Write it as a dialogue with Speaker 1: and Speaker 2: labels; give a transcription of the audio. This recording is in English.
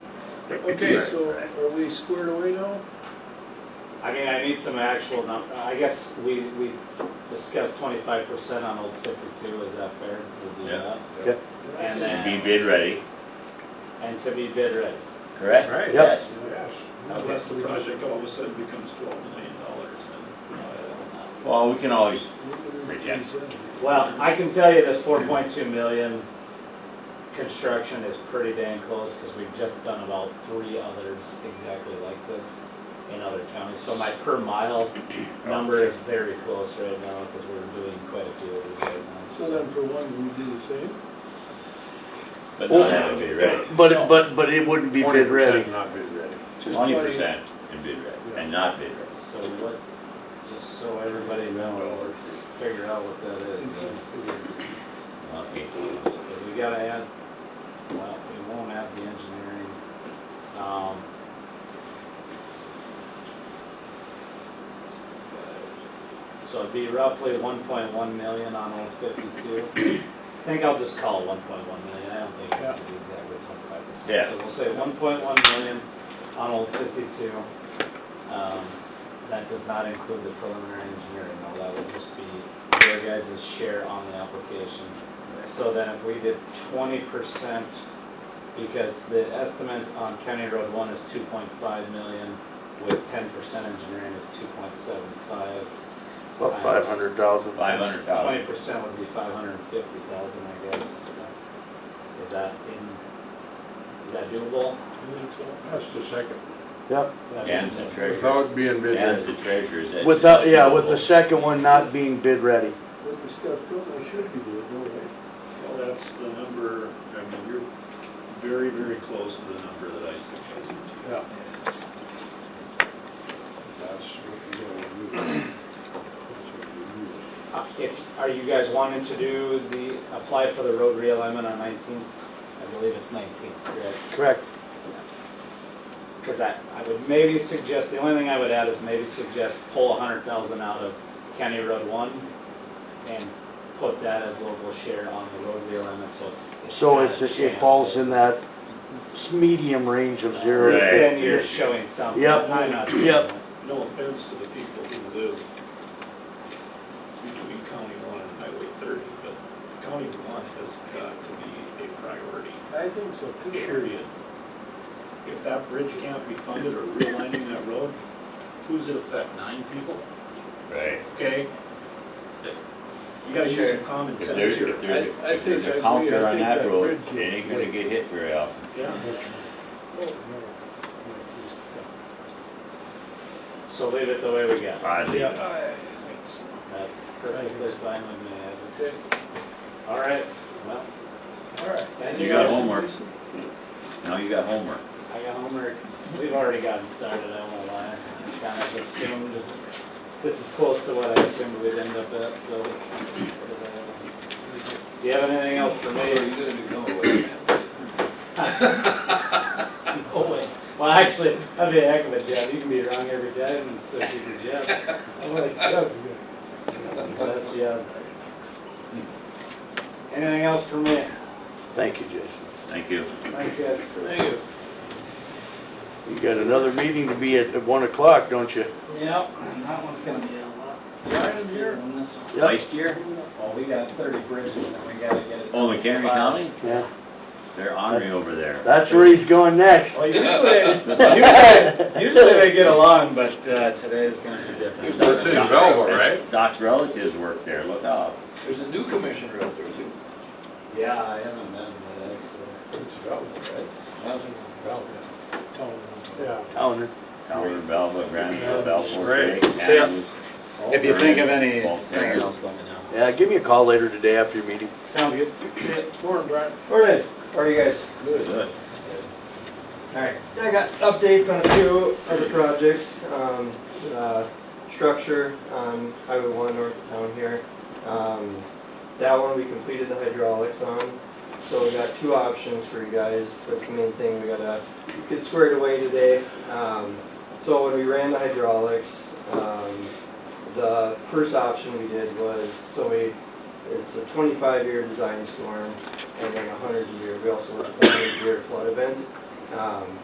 Speaker 1: Okay, so are we squared away now?
Speaker 2: I mean, I need some actual num, I guess we, we discussed twenty-five percent on Old Fifty-two, is that fair? We'll do
Speaker 3: Yeah.
Speaker 2: that.
Speaker 4: Yeah.
Speaker 2: And
Speaker 3: To be
Speaker 2: then,
Speaker 3: bid ready,
Speaker 2: and to be bid ready.
Speaker 3: correct?
Speaker 5: Right.
Speaker 3: Yes.
Speaker 5: Yes.
Speaker 6: Unless the project all of a sudden becomes twelve million dollars
Speaker 2: No, I don't know.
Speaker 3: Well, we can always,
Speaker 1: Reject.
Speaker 2: Well, I can tell you this four point two million construction is pretty dang close, because we've just done about three others exactly like this in other counties, so my per mile number is very close right now, because we're doing quite a few of these right now,
Speaker 1: So
Speaker 2: so.
Speaker 1: then for one, we do the same?
Speaker 3: but not have it bid ready.
Speaker 4: But, but, but it wouldn't be bid ready.
Speaker 5: Not bid ready.
Speaker 1: Just
Speaker 3: Twenty
Speaker 1: by-
Speaker 3: percent and bid ready, and not bid ready.
Speaker 2: So what, just so everybody knows, let's figure out what that is,
Speaker 3: Okay.
Speaker 2: because we gotta add, well, we won't add the engineering. Um, So it'd be roughly one point one million on old fifty-two. I think I'll just call it one point one million, I don't think it's exactly twenty-five percent.
Speaker 3: Yeah.
Speaker 2: So we'll say one point one million on old fifty-two. Um, That does not include the preliminary engineering, though, that would just be your guys' share on the application. So then if we did twenty percent, because the estimate on County Road One is two point five million, with ten percent engineering is two point seven five. Uh,
Speaker 4: About five hundred thousand.
Speaker 3: Five
Speaker 2: Twenty
Speaker 3: hundred thousand.
Speaker 2: percent would be five hundred and fifty thousand, I guess. So Is that in, is that doable?
Speaker 1: I think so.
Speaker 5: That's the second.
Speaker 4: Yep.
Speaker 3: Dan's the treasurer.
Speaker 5: Without being bid
Speaker 3: Dan's the
Speaker 5: ready.
Speaker 3: treasurer. Is that-
Speaker 4: Without, yeah, with the second one not being bid ready.
Speaker 1: With the step built, I should be doing, no way.
Speaker 6: and well, that's the number, I mean, you're very, very close to the number that I suggested to you.
Speaker 5: Yeah. That's what you gotta use. That's what you use.
Speaker 2: Uh, If, are you guys wanting to do the, apply for the road realignment on nineteenth? I believe it's nineteenth, correct?
Speaker 4: Correct.
Speaker 2: Because I, I would maybe suggest, the only thing I would add is maybe suggest pull a hundred thousand out of County Road one and put that as local share on the road realignment, so it's.
Speaker 4: So
Speaker 2: got
Speaker 4: it's,
Speaker 2: a
Speaker 4: it
Speaker 2: chance.
Speaker 4: falls in that s- medium range of zero.
Speaker 2: At least
Speaker 3: Right.
Speaker 2: Then you're showing something.
Speaker 4: Yep.
Speaker 2: I'm not saying
Speaker 4: Yep.
Speaker 2: that.
Speaker 6: No offense to the people who live between County One and Highway thirty, but County One has got to be a priority.
Speaker 1: I think so too.
Speaker 6: period. If that bridge can't be funded or realigning that road, who's it affect? Nine people?
Speaker 3: Right.
Speaker 6: Okay? You gotta use some common
Speaker 3: If
Speaker 6: sense
Speaker 3: there's,
Speaker 6: here.
Speaker 3: if there's,
Speaker 1: I- I
Speaker 3: a- if there's
Speaker 1: think I
Speaker 3: a
Speaker 1: agree.
Speaker 3: counter
Speaker 1: I
Speaker 3: on
Speaker 1: think
Speaker 3: that
Speaker 1: that
Speaker 3: road,
Speaker 1: bridge-
Speaker 3: it ain't gonna get hit very often.
Speaker 6: Yeah.
Speaker 1: Oh, no. No, just, uh,
Speaker 2: So leave it the way we got. it.
Speaker 3: Oddly.
Speaker 6: I think so.
Speaker 2: That's perfectly fine with me. I just-
Speaker 1: Okay,
Speaker 2: All right, well,
Speaker 1: all right.
Speaker 2: and
Speaker 3: You
Speaker 2: you
Speaker 3: got
Speaker 2: guys,
Speaker 3: homework. Now you got homework.
Speaker 2: I got homework. We've already gotten started, I won't lie. I Kind of assumed, this is close to what I assumed we'd end up at, so. Do you have anything else for me? No way. Oh, Well, actually, that'd be a heck of a job. You can be wrong every time and still keep your job.
Speaker 1: I like Chuck, yeah.
Speaker 2: That's the odds. Anything else for me?
Speaker 4: Thank you, Jason.
Speaker 3: Thank you.
Speaker 2: Thanks, guys.
Speaker 1: Thank you.
Speaker 4: You got another meeting to be at at one o'clock, don't you?
Speaker 2: Yep, and that one's gonna be a lot.
Speaker 1: Brian, here.
Speaker 2: on this one.
Speaker 4: Yep.
Speaker 3: Last year,
Speaker 2: Well, we got thirty bridges and we gotta get it.
Speaker 3: oh, McHenry County,
Speaker 4: Yeah.
Speaker 3: they're ornery over there.
Speaker 4: That's where he's going next.
Speaker 2: Well, usually, usually, usually they get along, but, uh, today's gonna be different.
Speaker 5: That's in Velva, right?
Speaker 3: Doc's relatives work there, look out.
Speaker 7: There's a new commissioner out there too.
Speaker 2: Yeah, I haven't been there, actually.
Speaker 5: It's Velva, right? Velva. Yeah.
Speaker 4: Counter.
Speaker 3: Counter, Velva, Granville, Belfort.
Speaker 5: Great.
Speaker 3: Lake,
Speaker 2: See ya.
Speaker 3: Adams,
Speaker 2: If you think of
Speaker 3: Berlin, Voltaire.
Speaker 2: anything else, let me know.
Speaker 4: Yeah, give me a call later today after your meeting.
Speaker 2: Sounds good.
Speaker 1: Morning, Brian.
Speaker 8: Alright, how are you guys?
Speaker 3: Good.
Speaker 8: Alright, I got updates on a few other projects, um, uh, structure on Highway one north of town here. Um, that one we completed the hydraulics on, so we got two options for you guys, that's the main thing we gotta get squared away today. Um, so when we ran the hydraulics, um, the first option we did was, so we, it's a twenty-five year design storm, and then a hundred year, we also looked at the hundred year flood event. Um,